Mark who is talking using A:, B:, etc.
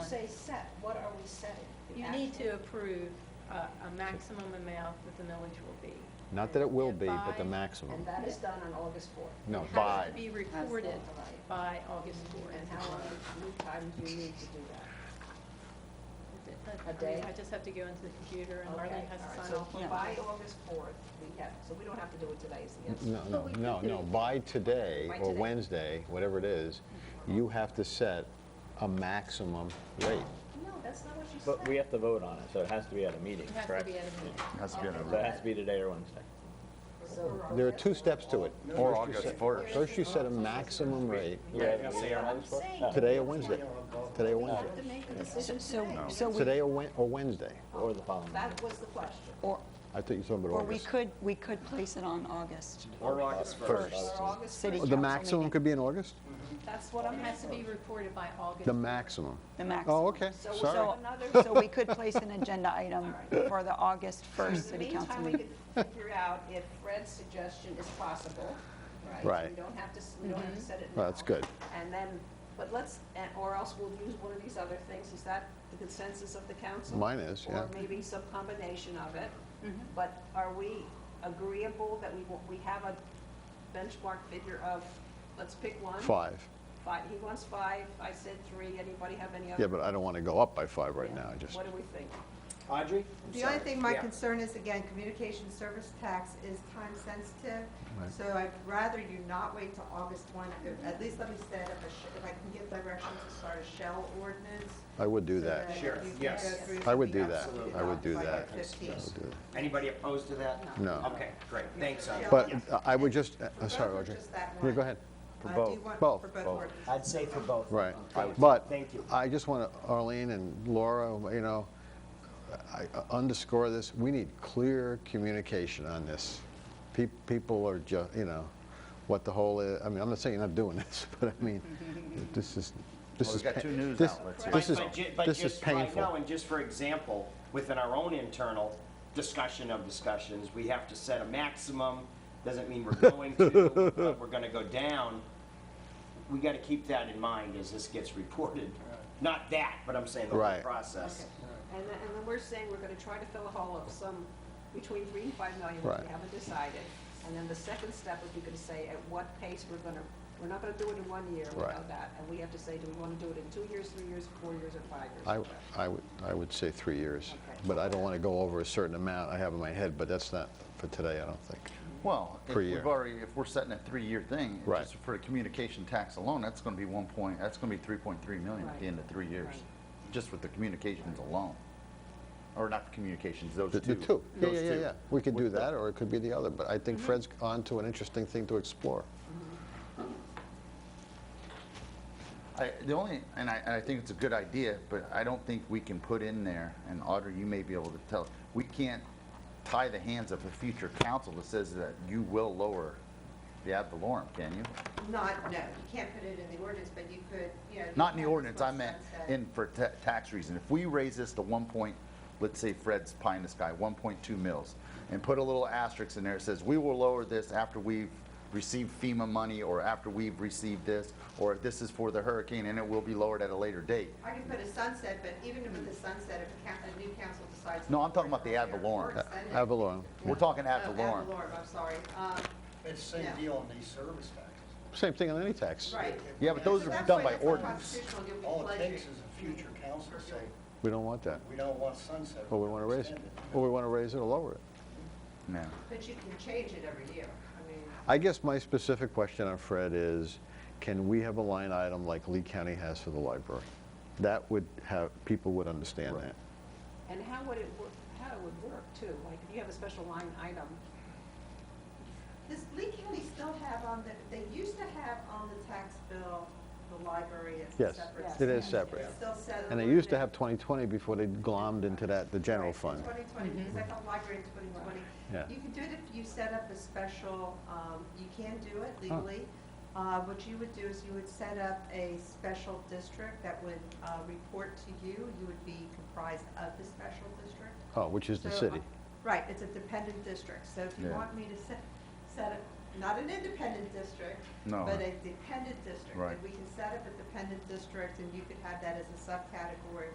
A: say set, what are we setting? The
B: You need
A: actual-
B: to approve a, a maximum amount that the millage will be.
C: Not that it will be, but the
B: By-
C: maximum.
A: And that is done on August fourth.
C: No,
B: It has
C: by,
B: to be recorded
A: Right.
B: by August
A: And
B: 4th.
A: how long, how many times do you need to do that?
B: I
A: A
B: mean,
A: day?
B: I just have to go into the computer and
A: Okay,
B: Marlene has
A: all right,
B: to sign
A: so
B: off.
A: for By August fourth, we have, so we don't have to do it today, is the answer.
C: no, no, no, no, by today
A: By
C: or
A: today.
C: Wednesday, whatever it is, you have to set a maximum rate.
A: No, that's not what you said.
D: But we have to vote on it, so it has to be at a meeting,
B: It has to
D: correct?
B: be at a meeting.
E: Has to be on
A: Okay.
E: a
D: So it has to be today or Wednesday.
A: So-
C: There are two steps to it.
E: Or
C: First you
E: August
C: set-
E: 1st.
C: First, you set a maximum rate,
A: I'm saying, you
C: today or Wednesday, today or Wednesday,
A: have to make a decision
F: So,
A: today.
F: so we,
C: today or Wed- or Wednesday.
D: Or the following.
A: That was the question.
F: or,
C: I thought you were talking about
F: or we
C: August.
F: could, we could place it on August.
D: Or August
A: Or August
F: City
A: first,
C: Oh, The
F: council
C: maximum
F: meeting.
C: could be in August?
A: that's what I'm
B: It has to
A: asking.
B: be recorded by August.
C: The maximum.
F: The maximum.
C: Oh, okay,
A: So we'll
C: sorry.
A: set
F: So,
A: another-
F: so we could place an agenda item for the August
A: In
F: 1st
A: the
F: city council
A: meantime, we
F: meeting.
A: could figure out if Fred's suggestion is possible, right?
C: Right.
A: We don't have to, s- we don't
F: Mm-hmm.
A: have to set it now.
C: Well, that's good.
A: And then, but let's, and- or else we'll use one of these other things. Is that the consensus of the council?
C: Mine is, yeah.
A: Or maybe some combination of it.
F: Mm-hmm.
A: But are we agreeable that we, wa- we have a benchmark figure of, let's pick one?
C: Five.
A: Five, he wants five, I said three. Anybody have any other?
C: Yeah, but I don't want to go up by five right now, I just,
A: What do we think?
G: Audrey?
H: The only thing my
G: Yeah.
H: concern is, again, communication service tax is time sensitive,
C: Right.
H: so I'd rather you not wait till August one. If- At least let me set up a, sh- if I can get direction to start a shell ordinance.
C: I would do
H: so
C: that.
H: you
G: Sure,
H: can
G: yes.
H: go through
C: I would
H: something
C: do that.
H: absolutely
C: I would
H: not
C: do
H: by
C: that.
H: the 15th.
G: Anybody opposed to that?
C: No.
G: Okay, great, thanks, Audrey.
C: But I would just, uh,
H: For
C: sorry,
H: both or
C: Audrey.
H: just that
C: Yeah,
H: one?
C: go ahead.
H: Uh, do
D: both.
H: you want
C: Both.
H: For both ordinances?
G: I'd say for both.
C: Right.
G: Thank you.
C: But
G: Thank you.
C: I just want to, Arlene and Laura, you know, I I underscore this, we need clear communication on this. Pe- People are just, you know, what the whole, i- I mean, I'm not saying you're not doing this, but I mean, this is, this
E: Well,
C: is.
E: we've got
C: pa-
E: two news
C: this-
E: outlets
C: This
G: But-
C: is,
G: but ju- but
C: this is
G: just right now,
C: painful.
G: And just for example, within our own internal discussion of discussions, we have to set a maximum, doesn't mean we're going to, but we're gonna go down. We gotta keep that in mind as this gets reported. Not that, but I'm saying the whole
C: Right.
A: Okay.
G: process.
A: And then, and then we're saying we're gonna try to fill a hole of some, between three and five million, which
C: Right.
A: we haven't decided. And then the second step is we could say at what pace we're gonna, we're not gonna do it in one year, we know
C: Right.
A: that. And we have to say, do we wanna do it in two years, three years, four years, or five years?
C: I I would, I would say three years,
A: Okay.
C: but I don't want to go over a certain amount I have in my head, but that's not for today, I don't think.
E: Well, if
C: Per
E: we've
C: year.
E: already, if we're setting a three-year thing,
C: Right.
E: just for the communication tax alone, that's gonna be one point, that's gonna be three point three million at
A: Right.
E: the end of three years,
A: Right.
E: just with the communications alone. Or not the communications, those
C: The
E: two.
C: the two, yeah,
E: Those
C: yeah, yeah,
E: two.
C: yeah. We could do
E: With the-
C: that, or it could be the other, but I think Fred's on to an interesting thing to explore.
E: I, the only, and I, and I think it's a good idea, but I don't think we can put in there, and Audrey, you may be able to tell, we can't tie the hands of a future council that says that you will lower the ad valorem, can you?
H: Not, no, you can't put it in the ordinance, but you could, you know.
E: Not in the
H: have
E: ordinance, I
H: this
E: meant
H: sunset.
E: in for ta- tax reason. If we raise this to one point, let's say Fred's pie in the sky, one point two mils, and put a little asterisk in there that says, we will lower this after we've received FEMA money, or after we've received this, or this is for the hurricane, and it will be lowered at a later date.
H: I can put a sunset, but even with the sunset, if a coun- a new council decides.
E: No, I'm talking about the ad
H: Or
E: valorem.
H: extend it.
C: Ad valorem,
E: We're talking
H: Oh,
E: ad valorem.
H: I'm sorry. Um,
I: It's the same
H: Yeah.
I: deal on these service taxes.
C: same thing on any tax.
H: Right.
E: Yeah, but those
H: So
E: are
H: that's
E: done
H: why
E: by
H: that's not
E: ordinance.
H: constitutional, you'll be
I: All it
H: pleasured.
I: takes is a future council say,
C: We don't want that.
I: we don't want sunset.
C: Well, we want to raise it,
I: extend
C: or we want to raise it or lower it.
E: No.
H: But you can change it every year. I mean,
C: I guess my specific question on Fred is, can we have a line item like Lee County has for the library? That would have, people would understand that.
A: And how would it work, how it would work too? Like, if you have a special line item,
H: does Lee County still have on the, they used to have on the tax bill, the library as a
C: Yes,
H: separate.
C: it
H: section.
C: is separate.
H: It's still set.
C: And they used to have 2020 before they glommed into that, the general fund.
H: Twenty twenty, because I thought library in twenty
C: Yeah.
H: twenty. You can do it if you set up a special, um, you can do it legally. Uh, what you would do is you would set up a special district that would, uh, report to you. You would be comprised of the special district.
C: Oh, which is the
H: So, uh,
C: city.
H: Right, it's a dependent district, so if you
E: Yeah.
H: want me to set, set, a- not an independent district,
E: No.
H: but a dependent district.
E: Right.
H: And we can set up a dependent district, and you could have that as a subcategory